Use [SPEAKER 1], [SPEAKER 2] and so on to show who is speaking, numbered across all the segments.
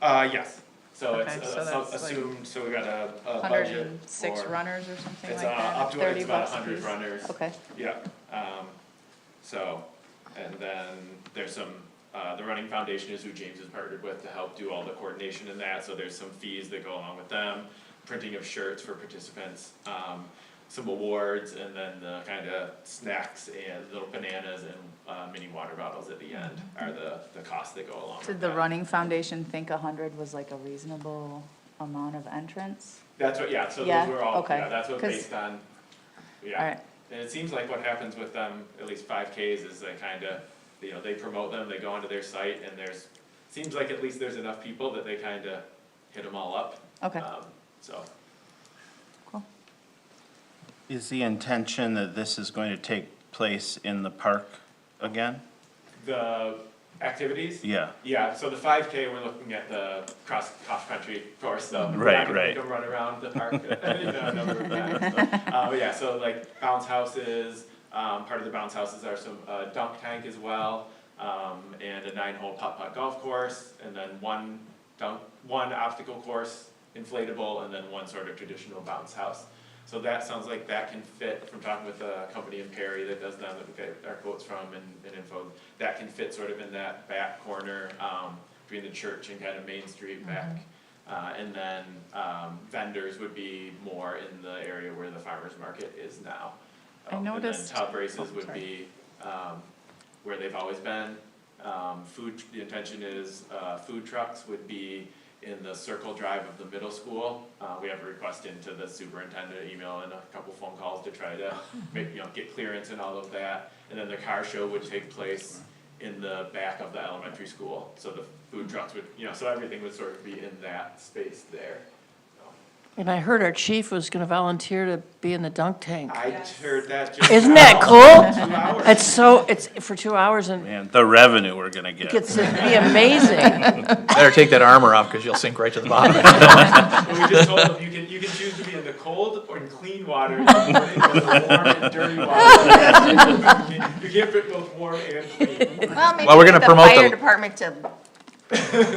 [SPEAKER 1] Uh, yes, so it's
[SPEAKER 2] Okay, so
[SPEAKER 1] uh, so-
[SPEAKER 2] that's like
[SPEAKER 1] assumed, so we got a, a budget for.
[SPEAKER 2] Hundred and six runners or something like
[SPEAKER 1] It's, uh,
[SPEAKER 2] that?
[SPEAKER 1] up to,
[SPEAKER 2] Thirty
[SPEAKER 1] it's about
[SPEAKER 2] bucks
[SPEAKER 1] a
[SPEAKER 2] a
[SPEAKER 1] hundred
[SPEAKER 2] piece?
[SPEAKER 1] runners.
[SPEAKER 2] Okay,
[SPEAKER 1] Yeah, um, so, and then there's some, uh, the Running Foundation is who James is partnered with to help do all the coordination and that, so there's some fees that go along with them. Printing of shirts for participants, um, some awards, and then the kinda snacks and little bananas and, uh, mini water bottles at the end are the, the costs that go along with
[SPEAKER 2] did the
[SPEAKER 1] that.
[SPEAKER 2] Running Foundation think a hundred was like a reasonable amount of entrance?
[SPEAKER 1] That's what, yeah, so
[SPEAKER 2] Yeah,
[SPEAKER 1] those were all,
[SPEAKER 2] okay,
[SPEAKER 1] yeah, that's what
[SPEAKER 2] 'cause-
[SPEAKER 1] based on, yeah.
[SPEAKER 2] Alright,
[SPEAKER 1] And it seems like what happens with them, at least five Ks, is they kinda, you know, they promote them, they go onto their site, and there's, seems like at least there's enough people that they kinda hit them all up.
[SPEAKER 2] okay,
[SPEAKER 1] Um, so,
[SPEAKER 2] cool.
[SPEAKER 3] Is the intention that this is going to take place in the park again?
[SPEAKER 1] the activities,
[SPEAKER 3] Yeah,
[SPEAKER 1] yeah, so the five K, we're looking at the cross, cross-country course, so. we're
[SPEAKER 3] Right,
[SPEAKER 1] not gonna
[SPEAKER 3] right.
[SPEAKER 1] Go run around the park, I didn't know, no, we're not, so, uh, but yeah, so like bounce houses, um, part of the bounce houses are some, uh, dunk tank as well, um, and a nine-hole putt-putt golf course, and then one dunk, one obstacle course inflatable, and then one sort of traditional bounce house. So that sounds like that can fit, from talking with a company in Perry that does them, that we get our quotes from and, and info, that can fit sort of in that back corner, um, between the church and kind of Main Street back.
[SPEAKER 2] Mm-hmm.
[SPEAKER 1] Uh, and then, um, vendors would be more in the area where the farmer's market is now.
[SPEAKER 2] I
[SPEAKER 1] Um,
[SPEAKER 2] noticed-
[SPEAKER 1] And then tub races
[SPEAKER 2] oh,
[SPEAKER 1] would
[SPEAKER 2] sorry.
[SPEAKER 1] be, um, where they've always been. Um, food, the intention is, uh, food trucks would be in the circle drive of the middle school. Uh, we have a request into the superintendent email and a couple phone calls to try to make, you know, get clearance and all of that. And then the car show would take place in the back of the elementary school, so the food trucks would, you know, so everything would sort of be in that space there.
[SPEAKER 4] And I heard our chief was gonna volunteer to be in the dunk tank.
[SPEAKER 1] I heard that just.
[SPEAKER 4] Isn't that cool?
[SPEAKER 1] Two hours.
[SPEAKER 4] It's so, it's for two hours and
[SPEAKER 3] man, the revenue we're gonna
[SPEAKER 4] it
[SPEAKER 3] get.
[SPEAKER 4] gets to be amazing.
[SPEAKER 5] Better take that armor off because you'll sink right to the bottom.
[SPEAKER 1] And we just told them, you can, you can choose to be in the cold or in clean water, in the morning, or the warm and dirty water. You can- You can't fit both warm and clean.
[SPEAKER 6] Well, maybe
[SPEAKER 5] Well, we're
[SPEAKER 6] get
[SPEAKER 5] gonna promote
[SPEAKER 6] Fire
[SPEAKER 5] the-
[SPEAKER 6] department to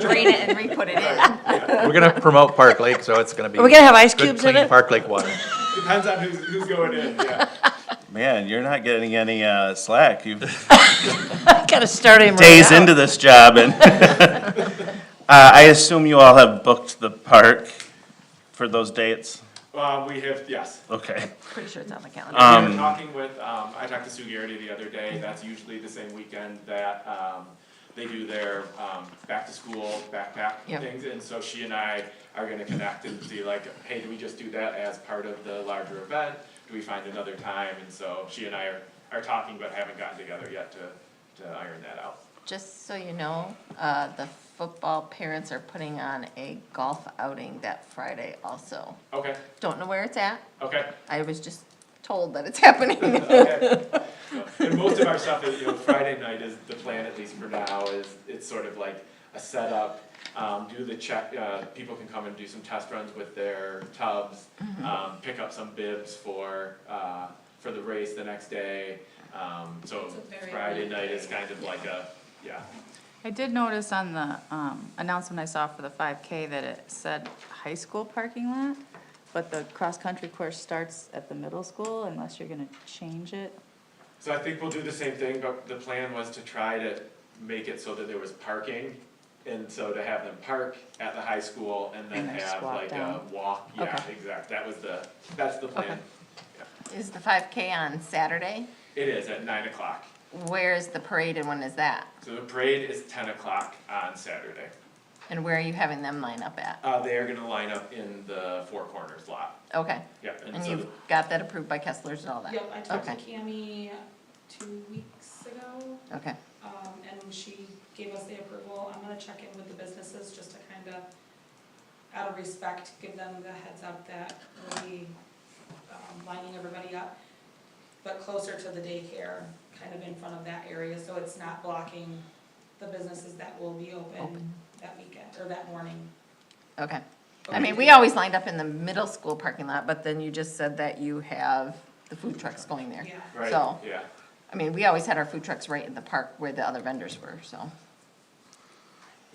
[SPEAKER 6] drain it and re-put it in.
[SPEAKER 5] We're gonna promote Park Lake, so it's gonna be.
[SPEAKER 4] Are we gonna have ice
[SPEAKER 5] good,
[SPEAKER 4] cubes in
[SPEAKER 5] clean
[SPEAKER 4] it?
[SPEAKER 5] Park Lake water.
[SPEAKER 1] Depends on who's, who's going in, yeah.
[SPEAKER 3] Man, you're not getting any, uh, slack. You've
[SPEAKER 4] Gotta start him right
[SPEAKER 3] days
[SPEAKER 4] out.
[SPEAKER 3] into this job and. Uh, I assume you all have booked the park for those dates?
[SPEAKER 1] Um, we have, yes.
[SPEAKER 3] Okay,
[SPEAKER 6] Pretty sure it's on the calendar.
[SPEAKER 1] We were talking with, um, I talked to Sue Garrity the other day, that's usually the same weekend that, um, they do their, um, back to school backpack
[SPEAKER 6] Yep.
[SPEAKER 1] things, and so she and I are gonna connect and see like, hey, do we just do that as part of the larger event? Do we find another time, and so she and I are, are talking, but haven't gotten together yet to, to iron that out.
[SPEAKER 6] Just so you know, uh, the football parents are putting on a golf outing that Friday also.
[SPEAKER 1] Okay,
[SPEAKER 6] Don't know where it's at.
[SPEAKER 1] okay,
[SPEAKER 6] I was just told that it's happening.
[SPEAKER 1] okay. And most of our stuff is, you know, Friday night is, the plan at least for now, is, it's sort of like a setup. Um, do the check, uh, people can come and do some test runs with their tubs, um, pick up some bibs for, uh, for the race the next day. Um, so Friday night is kind of like a, yeah,
[SPEAKER 2] I did notice on the, um, announcement I saw for the five K that it said high school parking lot, but the cross-country course starts at the middle school unless you're gonna change it.
[SPEAKER 1] So I think we'll do the same thing, but the plan was to try to make it so that there was parking. And so to have them park at the high school and then
[SPEAKER 2] And then
[SPEAKER 1] have
[SPEAKER 2] just walk
[SPEAKER 1] like a
[SPEAKER 2] down.
[SPEAKER 1] walk, yeah,
[SPEAKER 2] Okay.
[SPEAKER 1] exact, that was the, that's the plan.
[SPEAKER 6] Is the five K on Saturday?
[SPEAKER 1] It is at nine o'clock,
[SPEAKER 6] Where is the parade and when is that?
[SPEAKER 1] so the parade is ten o'clock on Saturday.
[SPEAKER 6] And where are you having them line up at?
[SPEAKER 1] Uh, they are gonna line up in the Four Corners lot,
[SPEAKER 6] Okay,
[SPEAKER 1] yeah, and
[SPEAKER 6] and
[SPEAKER 1] so,
[SPEAKER 6] you've got that approved by Kessler's and all that?
[SPEAKER 7] Yep, I talked to
[SPEAKER 6] Okay.
[SPEAKER 7] Cami two weeks ago,
[SPEAKER 6] Okay,
[SPEAKER 7] um, and she gave us the approval. I'm gonna check in with the businesses just to kind of, out of respect, give them the heads up that we'll be um, lining everybody up, but closer to the daycare, kind of in front of that area, so it's not blocking the businesses that will be open
[SPEAKER 6] Open.
[SPEAKER 7] that weekend, or that morning.
[SPEAKER 6] okay. I mean, we always lined up in the middle school parking lot, but then you just said that you have the food trucks going there.
[SPEAKER 7] Yeah.
[SPEAKER 1] right, yeah.
[SPEAKER 6] So- I mean, we always had our food trucks right in the park where the other vendors were, so.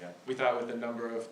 [SPEAKER 1] Yeah, we thought with the number of